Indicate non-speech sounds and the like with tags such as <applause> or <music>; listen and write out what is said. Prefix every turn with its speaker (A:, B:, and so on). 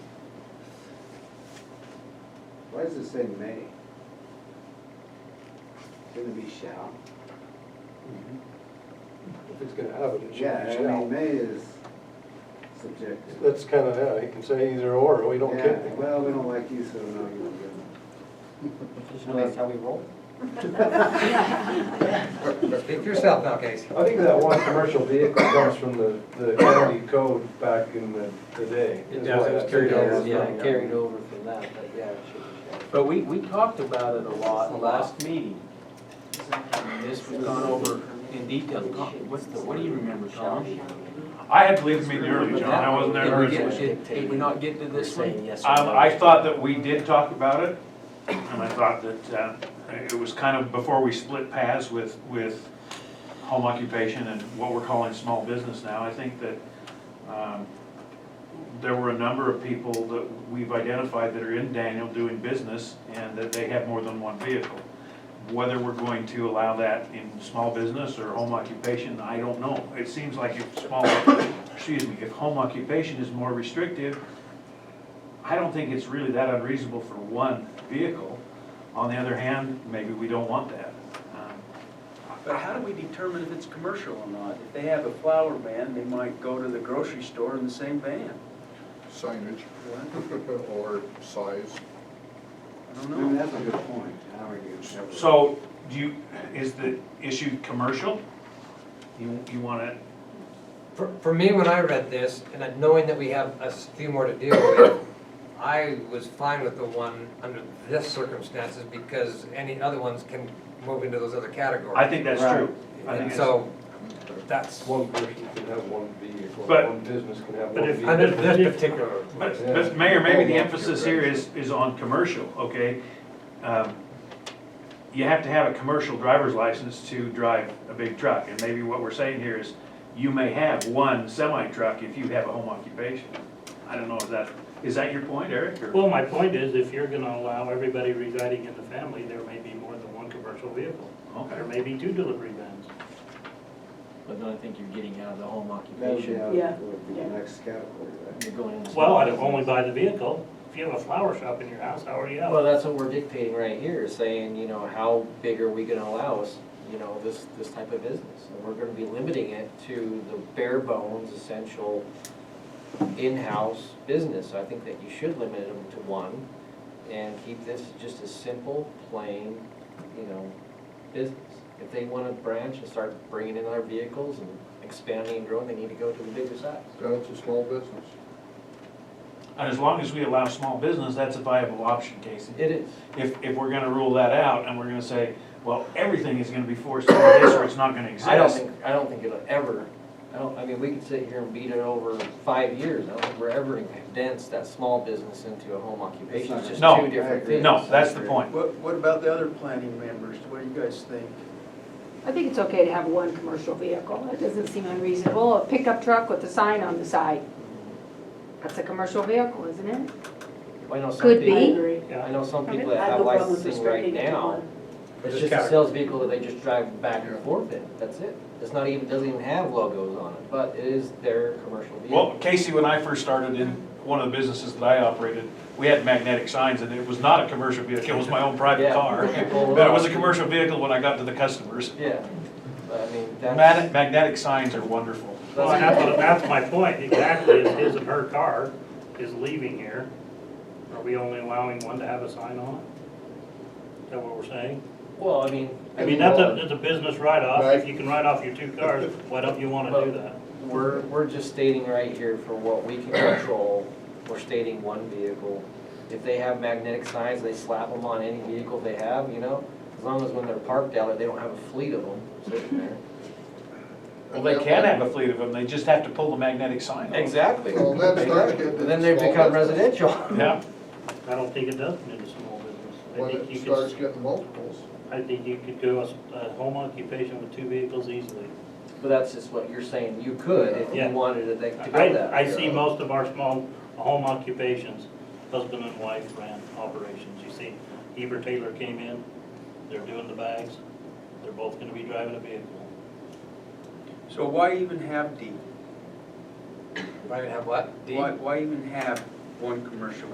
A: Why does it say may? Shouldn't it be shall?
B: If he's gonna have it, it
A: Yeah, I
B: should be
A: mean,
B: shall.
A: may is subjective.
B: That's kind of, yeah, he can say either or, we don't
A: Yeah,
B: care.
A: Well, we don't like you, so no, you don't get it.
C: That's how we roll.
D: Speak for yourself now, Casey.
B: I think that one commercial vehicle comes from the, the county code back in the, the day.
C: It
B: That's
C: does,
B: why
C: it was
B: that
C: carried
B: figure
C: over,
B: was
C: yeah,
B: running out.
C: carried over from that, but yeah, it should be shall.
E: But we, we talked about it a lot in the last meeting. And This we've gone over in detail. Con- What's the, what do you remember, Sean?
F: I had to leave the meeting early, John, I wasn't there
E: Did we get-
F: originally.
E: Did did we not get to this one?
C: yes
F: Um, I thought that we did talk about it, and I thought that, uh, it was kind of before we split paths with, with home occupation and what we're calling small business now, I think that, um, there were a number of people that we've identified that are in Daniel doing business, and that they have more than one vehicle. Whether we're going to allow that in small business or home occupation, I don't know. It seems like if small, excuse me, if home occupation is more restrictive, I don't think it's really that unreasonable for one vehicle. On the other hand, maybe we don't want that. Um,
G: But how do we determine if it's commercial or not? If they have a flower van, they might go to the grocery store in the same van.
H: signage <laughs> or size.
G: I don't
A: I
G: know.
A: mean, that's a good point, how are you? gonna-
F: So, do you, is the issue commercial? You, you wanna,
D: For, for me, when I read this, and then knowing that we have a s- few more to deal with, I was fine with the one under this circumstances because any other ones can move into those other categories.
F: I think that's true. I think
D: And
F: it's-
D: so, that's,
B: One person can have one vehicle,
F: But-
B: one business can have
F: but
B: one
F: if-
B: vehicle.
D: under this particular,
F: But, but Mayor, maybe the emphasis here is, is on commercial, okay? Um, You have to have a commercial driver's license to drive a big truck, and maybe what we're saying here is, you may have one semi-truck if you have a home occupation. I don't know if that, is that your point, Eric, or?
I: Well, my point is, if you're gonna allow everybody residing in the family, there may be more than one commercial vehicle. There
F: Okay.
I: may be two delivery vans.
C: But then I think you're getting out of the home
A: That would be,
C: occupation.
A: out-
J: Yeah.
A: would be the next category, right?
C: You're going into.
I: Well, I'd only buy the vehicle. If you have a flower shop in your house, how are you
C: Well,
I: out?
C: that's what we're dictating right here, is saying, you know, how big are we gonna allow us, you know, this, this type of business? And we're gonna be limiting it to the bare bones essential in-house business. I think that you should limit them to one and keep this just a simple, plain, you know, business. If they wanna branch and start bringing in other vehicles and expanding and growing, they need to go to the bigger size.
H: Then it's a small business.
F: And as long as we allow small business, that's a viable option, Casey.
C: It is.
F: If, if we're gonna rule that out, and we're gonna say, well, everything is gonna be forced into this, or it's not gonna exist.
C: I don't think, I don't think it'll ever, I don't, I mean, we could sit here and beat it over five years, I don't think we're ever gonna condense that small business into a home occupation, it's just
F: No,
C: two different
A: agree.
C: things.
F: No, that's the point.
G: What, what about the other planning members? What do you guys think?
J: I think it's okay to have one commercial vehicle. It doesn't seem unreasonable. A pickup truck with a sign on the side. That's a commercial vehicle, isn't it?
C: I know some
J: Could
C: people-
J: be.
C: I know some people
J: I
C: that
J: have
C: have
J: no problem with
C: licensing right
J: restricting it to
C: now,
J: one.
C: it's just a sales vehicle that they just drive back and forth in, that's it. It's not even, doesn't even have logos on it, but it is their commercial
F: Well,
C: vehicle.
F: Casey, when I first started in one of the businesses that I operated, we had magnetic signs and it was not a commercial vehicle, it was my own private
C: Yeah. <laughs>
F: car.
C: Well,
F: But it was a commercial vehicle when I got to the customers.
C: Yeah, but I mean,
F: Mag-
C: that's.
F: Magnetic signs are wonderful.
I: Well, and that's, what- that's my point, exactly, is his and her car is leaving here. Are we only allowing one to have a sign on it? Is that what we're saying?
C: Well, I mean.
I: I mean, that's a, that's a business write-off. If you can write off your two cars, why don't you wanna do that?
C: We're, we're just stating right here for what we can control, we're stating one vehicle. If they have magnetic signs, they slap them on any vehicle they have, you know? As long as when they're parked out, there, they don't have a fleet of them sitting there.
F: Well, they can have a fleet of them, they just have to pull the magnetic sign off.
C: Exactly.
H: Well, that's not good.
C: And then they become residential. <laughs>
F: Yeah,
I: I don't think it does come into small business. I
H: When
I: think you
H: it
I: could,
H: starts
I: s-
H: getting multiples,
I: I think you could do a, s- a home occupation with two vehicles easily.
C: But that's just what you're saying, you could if you
I: Yeah.
C: wanted it, they- to go
I: I,
C: that.
I: I see most of our small home occupations, husband and wife ran operations. You see, Heber Taylor came in, they're doing the bags, they're both gonna be driving a vehicle.
G: So why even have D?
C: Right, have what?
G: Why, why even have one commercial